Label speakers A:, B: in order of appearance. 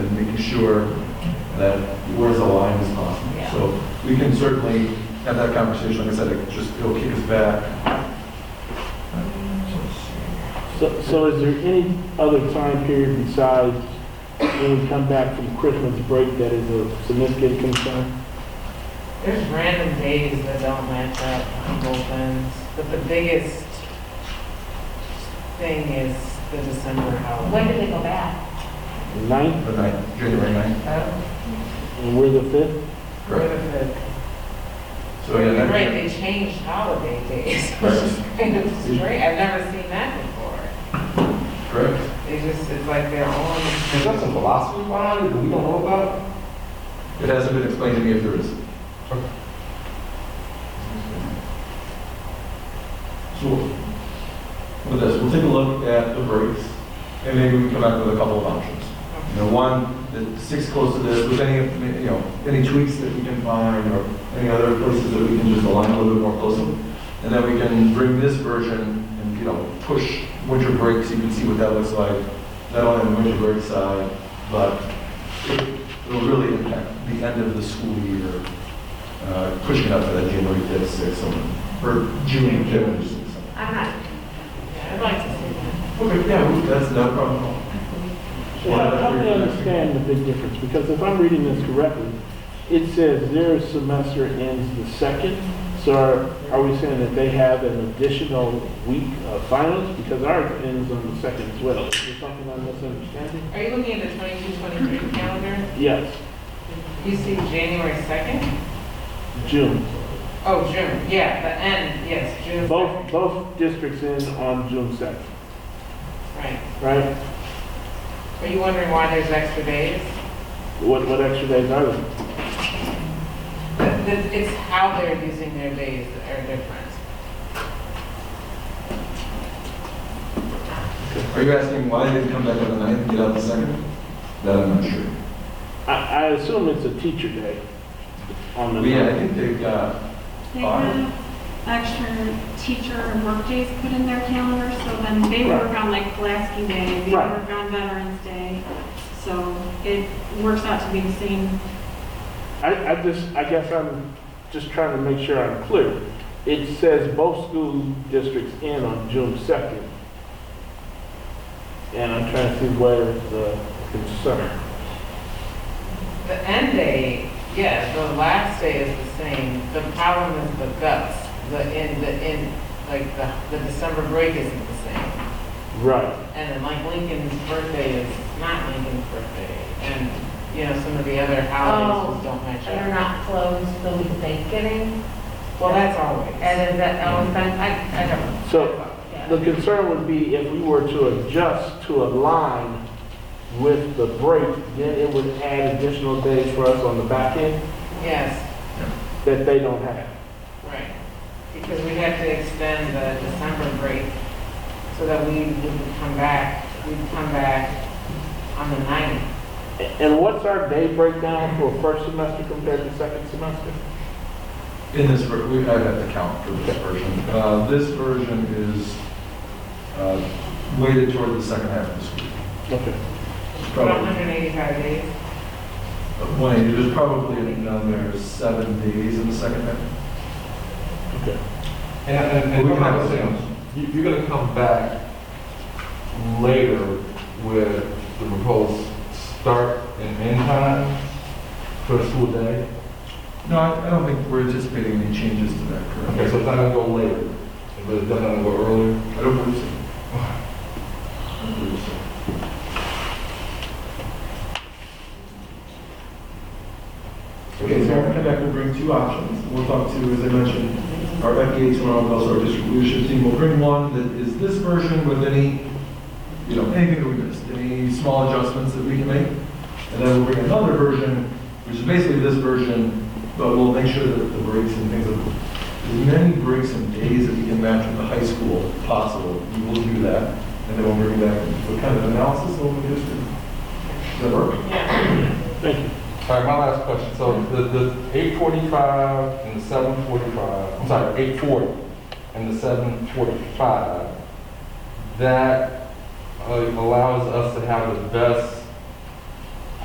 A: sure that we're as aligned as possible.
B: Yeah.
A: So we can certainly have that conversation, like I said, it just, it'll kick us back.
C: So, so is there any other time period besides when we come back from Christmas break that is a significant concern?
B: There's random days that don't match up on both ends, but the biggest thing is the December
D: When
B: holiday.
D: did they go back?
C: The Ninth,
A: The ninth, January ninth.
B: Oh,
C: and we're the fifth?
B: What if it-
A: So yeah, that-
B: Right, they changed holiday days, which is kind of strange. I've never seen that before.
A: correct?
B: They just, it's like their
E: Is that
B: own.
E: some philosophy behind it that we don't know about?
A: It hasn't been explained to me if there is. So, with this, we'll take a look at the breaks, and maybe we can come up with a couple of options. You know, one, the six close to this, with any, you know, any tweaks that we can find, or any other places that we can just align a little bit more closely. And then we can bring this version and, you know, push winter breaks, you can see what that looks like, not only on the winter break side, but it will really impact the end of the school year, uh, pushing up to that January 5th, 6th, or- or June 5th, or 6th.
D: I'm not,
B: Yeah, I'd like to see that.
A: Okay, yeah, we- that's no problem. at all.
C: So how- Help me understand the big difference, because if I'm reading this correctly, it says their semester ends the second, so are, are we saying that they have an additional week of finals? Because ours ends on the second as well. Is there something I'm misunderstanding?
B: Are you looking at the 22, 23 calendar?
C: Yes,
B: You see January 2nd?
C: June.
B: Oh, June, yeah, the end, yes, June.
C: Both, both districts in on June 2nd,
B: Right.
C: right?
B: Are you wondering why there's extra days?
C: What, what extra days are there?
B: Th- th- It's how they're using their days that are different.
A: Are you asking why they didn't come back on the ninth and get out the second? That I'm not sure.
C: I, I assume it's a teacher day on the.
A: But yeah, I think they uh, got,
F: They
A: Are-
F: have extra teacher and work days put in their calendar, so then they
C: Right.
F: work on like Pulaski Day, they
C: Right.
F: work on Veterans Day. So it works out to be the same.
C: I, I just, I guess I'm just trying to make sure I'm clear. It says both school districts in on June 2nd. And I'm trying to see where the concern.
B: The end day, yeah, the last day is the same. The problem is the guts, the in, the in, like the, the December break isn't the same.
C: Right.
B: And then like Lincoln's birthday is not Lincoln's birthday. And, you know, some of the other holidays just don't match
D: they're
B: up.
D: not closed the week of Thanksgiving,
B: Well, that's always.
D: and is that, oh, it's been- I, I don't know.
C: So
D: Yeah.
C: the concern would be if we were to adjust to align with the break, then it would add additional days for us on the back end
B: Yes,
C: that they don't have.
B: right. Because we have to extend the December break so that we would come back, we'd come back on the ninth.
C: And what's our day breakdown for first semester compared to second semester?
A: in this, ver- we, I have to count for this version. Uh, this version is, uh, weighted toward the second half of the school.
C: Okay.
A: Probably, uh,
B: 185 days.
A: one, there's probably another seven days in the second half.
E: And, and,
A: Well,
E: and
A: we can have
E: I'm saying, you, you're gonna come back later with the proposed start and end time for the school day.
A: No, I, I don't think we're anticipating any changes to that,
E: Okay,
A: correct?
E: so it's not gonna go later, but it's definitely gonna go earlier.
A: I don't believe so. I don't believe so. Okay, so I'm gonna come back, we'll bring two options. We'll talk to, as I mentioned, our FBA tomorrow, and also our district leadership team. We'll bring one that is this version with any, you know, anything that we missed, any small adjustments that we can make. And then we'll bring another version, which is basically this version, but we'll make sure that the breaks and things, as many breaks and days that we can match with the high school possible, we will do that. And then we'll bring back, what kind of analysis will we do? Does that work?
B: Yeah.
C: Thank you.
E: All right, my last question, so the, the eight forty-five and the seven forty-five, I'm sorry, eight forty and the seven forty-five, that uh, allows us to have the best